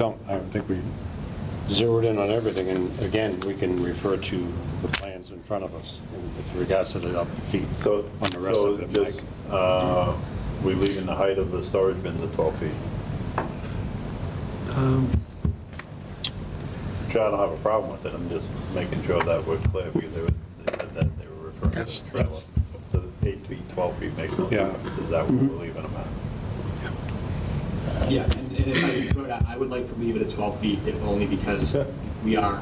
don't, I don't think we zeroed in on everything, and again, we can refer to the plans in front of us in- with regards to the other feet So, on the rest so of it, just, Mike. uh, we leaving the height of the storage bins at 12 feet? Um, Sure, I don't have a problem with it, I'm just making sure that we're clear, because they were, they said that they were referring to That's- the trailer. that's- Mm-hmm. So eight feet, 12 feet makes no Yeah. difference, is that what we're leaving them at? Yeah, and and if I could, I I would like to leave it at 12 feet, if only because Sure. we are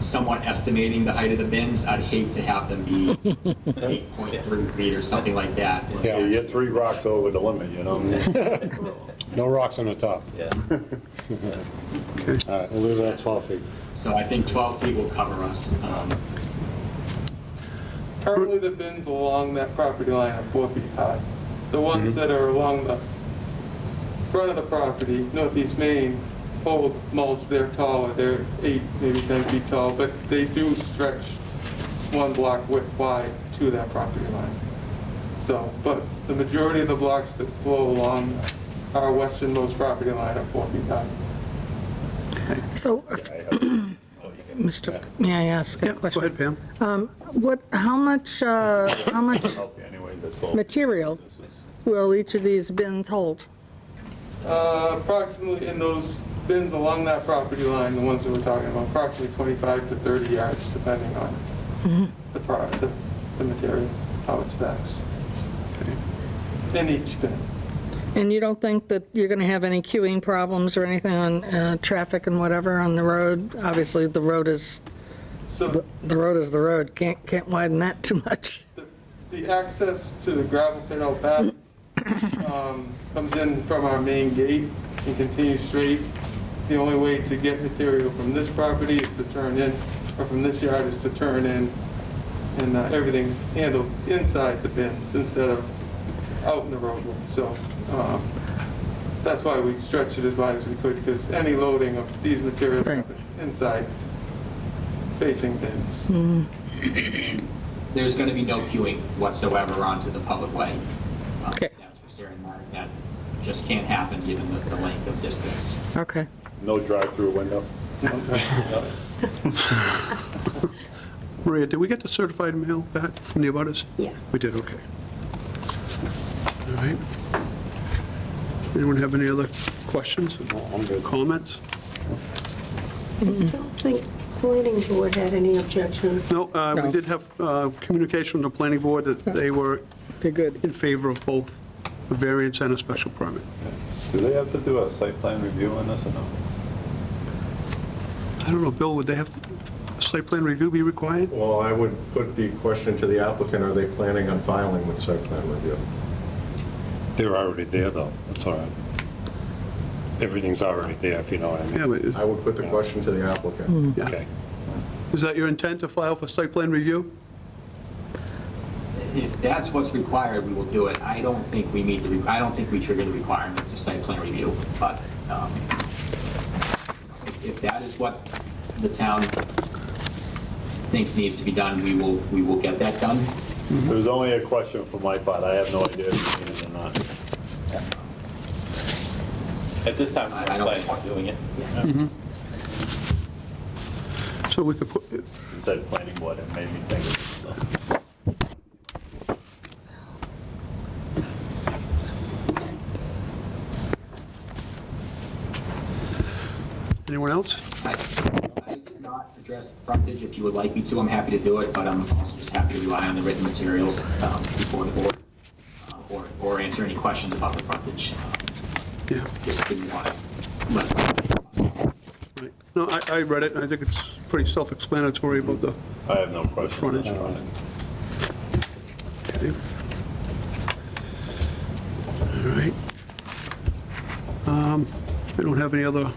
somewhat estimating the height of the bins. I'd hate to have them be 8.3 feet or something like that. Yeah. Yeah, You're three rocks over the limit, you know? No rocks on the top. Yeah. All right, we'll leave it at 12 feet. So I think 12 feet will cover us. Um, Currently, the bins along that property line are four feet high. The ones that are along the front of the property, Northeast Main, old mulch, they're taller, they're eight, maybe 10 feet tall, but they do stretch one block width wide to that property line. So, but the majority of the blocks that flow along our westernmost property line are four feet high. So, if- Mr., may I ask a Yeah, go ahead, question? Um, Pam. What, how much, uh, how much Help you anyway, that's all. material This is- will each of these bins hold? Uh, Approximately in those bins along that property line, the ones that we're talking about, approximately 25 to 30 yards, depending on the product, the- the material, how it stacks. In each bin. And you don't think that you're going to have any queuing problems or anything on uh, traffic and whatever on the road? Obviously, the road is, So the the road is the road, can't, can't widen that too much. the- the access to the gravel pit out back um, comes in from our main gate and continues straight. The only way to get material from this property is to turn in, or from this yard is to turn in, and uh, everything's handled inside the bins instead of out in the roadway. So um, that's why we stretched it as wide as we could, because any loading of these materials Right. happens inside facing bins. There's going to be no queuing whatsoever onto the public way. Um, Okay. That's for certain, Mark. That just can't happen, given the the length of distance. Okay. No drive-through window? Maria, did we get the certified mail back from the abutters? Yeah. We did, okay. All right. Anyone have any other questions, I'm good. comments? I don't think planning board had any objections. No, uh, we No. did have uh, communication from the planning board that they were Okay, good. in favor of both a variance and a special permit. Do they have to do a site plan review on this or no? I don't know, Bill, would they have, site plan review be required? Well, I would put the question to the applicant, are they planning on filing with site plan review? They're already there, though, that's all right. Everything's already there, if you know what I Yeah, mean. but is- I would put the question to the applicant. Okay. is that your intent to file for site plan review? If that's what's required, we will do it. I don't think we meet the, I don't think we trigger the requirements of site plan review, but um, if that is what the town thinks needs to be done, we will, we will get that done. It was only a question for my part, I have no idea if you mean it or not. At this time, I- I don't- I'm planning on doing it. So we could put, You said planning board, it made me think. anyone else? I I did not address frontage. If you would like me to, I'm happy to do it, but I'm also just happy to rely on the written materials um, before the board uh, or, or answer any questions about the frontage. Uh, Yeah. Just didn't want to let Right. No, I, I read it, and I think it's pretty self-explanatory about the I have no the question. Uh, frontage. Okay. All right. Um, I don't have any other,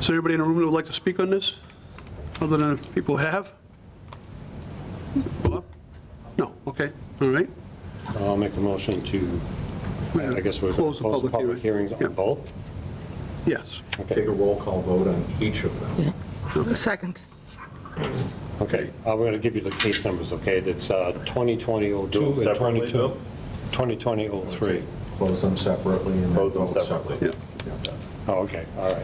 is there anybody in the room that would like to speak on this, other than people have? Bob? No, okay, all right. I'll make a motion to, I guess we're. Close the public hearing. hearings on Yeah. both? Yes, Take a roll call vote on each of them. Second. Okay, I'm going to give you the case numbers, okay? That's uh, 2020-02 Do them and separately, 22 2020-03. Close them separately and then Close them vote separately. separately. yeah. Yeah. Oh, okay, all right.